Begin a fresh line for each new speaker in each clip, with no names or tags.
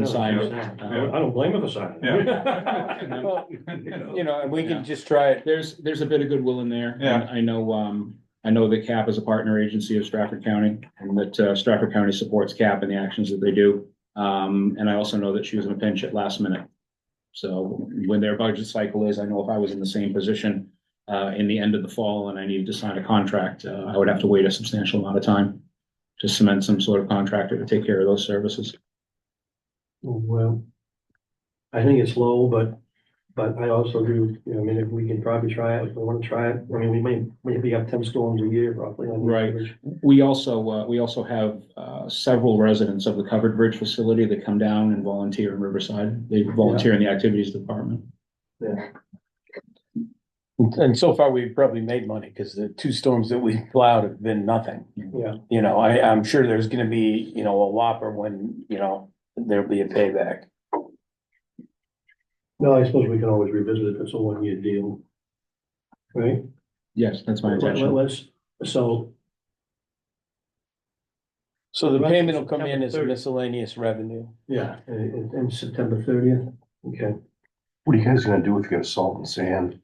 No,
signed it.
I
Uh,
don't- I don't blame him for signing.
Yeah.
Well,
You know, and we
Yeah.
can just try it.
There's, there's a bit of goodwill in there.
Yeah.
I know, um, I know that CAP is a partner agency of Stratford County and that uh, Stratford County supports CAP and the actions that they do. Um, and I also know that she was in a pinch at last minute. So when their budget cycle is, I know if I was in the same position uh, in the end of the fall and I needed to sign a contract, uh, I would have to wait a substantial amount of time to cement some sort of contractor to take care of those services.
Well, I think it's low, but, but I also do, you know, I mean, if we can probably try it, if we wanna try it, I mean, we may, maybe have ten storms a year roughly. on
Right.
average.
We also, uh, we also have, uh, several residents of the covered bridge facility that come down and volunteer in Riverside. They volunteer in the activities department.
Yeah,
And so far, we've probably made money because the two storms that we plowed have been nothing.
yeah,
You know, I, I'm sure there's gonna be, you know, a whopper when, you know, there'll be a payback.
no, I suppose we can always revisit it, if it's a one-year deal. Right?
Yes, that's my
Let- let-
intention.
Let's, so,
So the payment will come in as
September
miscellaneous revenue.
yeah, and, and September thirtieth, okay.
What are you guys gonna do if you got salt and sand?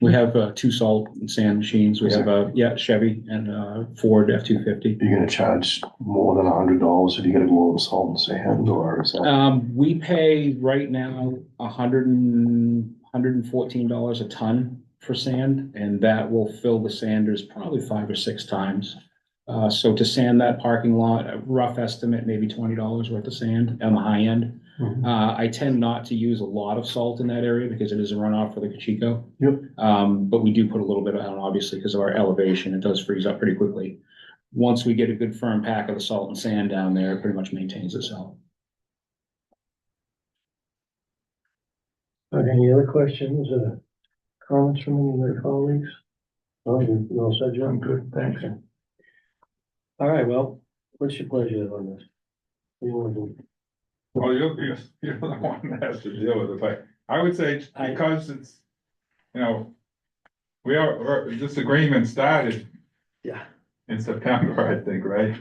We have, uh, two salt and sand machines. We have, uh, yeah, Chevy and, uh, Ford F-250.
You're gonna charge more than a hundred dollars if you gotta go over salt and sand or is that?
Um, we pay right now a hundred and, hundred and fourteen dollars a ton for sand, and that will fill the sanders probably five or six times. Uh, so to sand that parking lot, a rough estimate, maybe twenty dollars worth of sand on the high end.
Mhm.
Uh, I tend not to use a lot of salt in that area because it is a runoff for the Cachico.
Yep.
Um, but we do put a little bit on, obviously, because of our elevation, it does freeze up pretty quickly. Once we get a good firm pack of the salt and sand down there, it pretty much maintains itself.
Okay, Uh, any other questions or comments from any of my colleagues? Oh, you you all said, John?
good, thanks.
All right, well, what's your pleasure on this? What do you want to do?
Well, you're, you're, you're the one that has to deal with it, but I would say
I-
because it's, you know. We are, we're- this agreement started
Yeah,
in September, I think, right?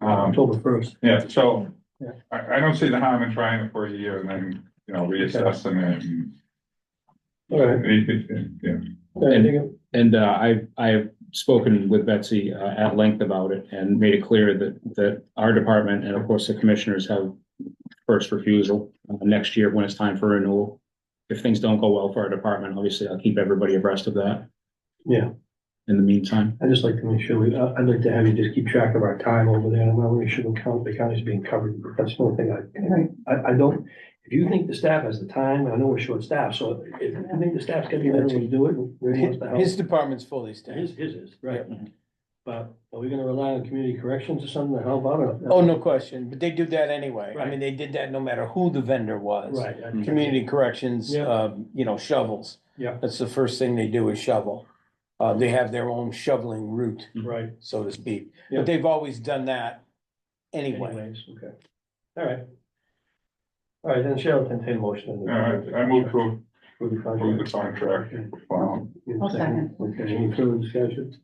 Um,
October first.
yeah, so
Yeah.
I, I don't see the harm in trying it for a year and then, you know, reassessing
All right.
it. and- Yeah,
I think-
And uh, I, I've spoken with Betsy uh, at length about it and made it clear that, that our department and of course the commissioners have first refusal uh, next year when it's time for renewal. If things don't go well for our department, obviously I'll keep everybody abreast of that
Yeah,
in the meantime.
I just like to make sure, we. I- I'd like to have you just keep track of our time over there, and I want to make sure the county, the county's being covered, that's the only thing I, I, I don't, if you think the staff has the time, I know we're short-staffed, so if you think the staff's gonna be there to do it, we're gonna have to help.
His department's fully
His,
staffed.
his is, right. But are we gonna rely on community corrections or something to help out? or-
Oh, no question, but they do that anyway. I
Right.
mean, they did that no matter who the vendor was.
Right. uh, I-
Community corrections,
Yeah.
um, you know, shovels.
Yeah.
That's the first thing they do is shovel. Uh, they have their own shoveling route,
Right,
so to speak,
Yeah.
but they've always done that anyway.
anyways, okay. All right. All right, then Cheryl can take a motion. on the-
all right, I move to
For the
approve the
contract.
contract. Wow.
In
I'll
second. Okay, any further discussion?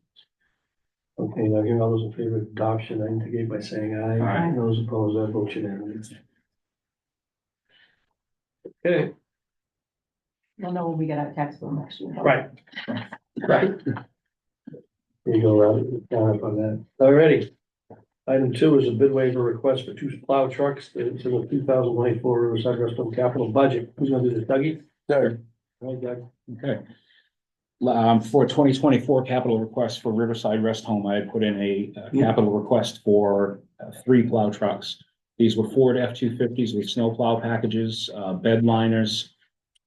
Okay, now here, all those in favor of adoption, I indicate by saying aye.
Aye.
Those opposed, I vote unanimous. Okay,
We'll know when we get our tax bill next year.
right. Right. There you go, Robert, down up on that. Alrighty. Item two is a bid waiver request for two plow trucks to to the two thousand twenty-four Riverside Restaurant capital budget. Who's gonna do this, Dougie?
Third,
All right, Doug.
Okay. Um, for twenty twenty-four capital request for Riverside Rest Home, I had put in a uh, capital request for uh, three plow trucks. These were Ford F two fifties with snow plow packages, uh, bed liners,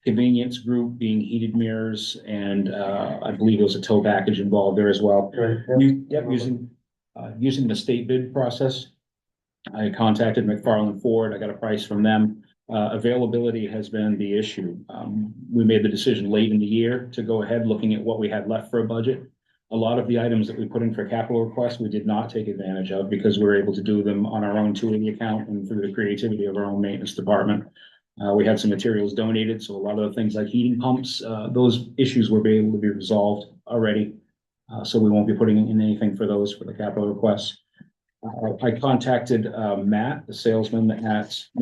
convenience group being heated mirrors, and, uh, I believe there was a tow package involved there as well.
Right.
U- yeah, using, uh, using the state bid process. I contacted McFarland Ford, I got a price from them. Uh, availability has been the issue. Um, we made the decision late in the year to go ahead, looking at what we had left for a budget. A lot of the items that we put in for capital requests, we did not take advantage of because we were able to do them on our own two eighty account and through the creativity of our own maintenance department. Uh, we had some materials donated, so a lot of the things like heating pumps, uh, those issues were able to be resolved already. Uh, so we won't be putting in anything for those for the capital requests. Uh, I contacted, uh, Matt, the salesman at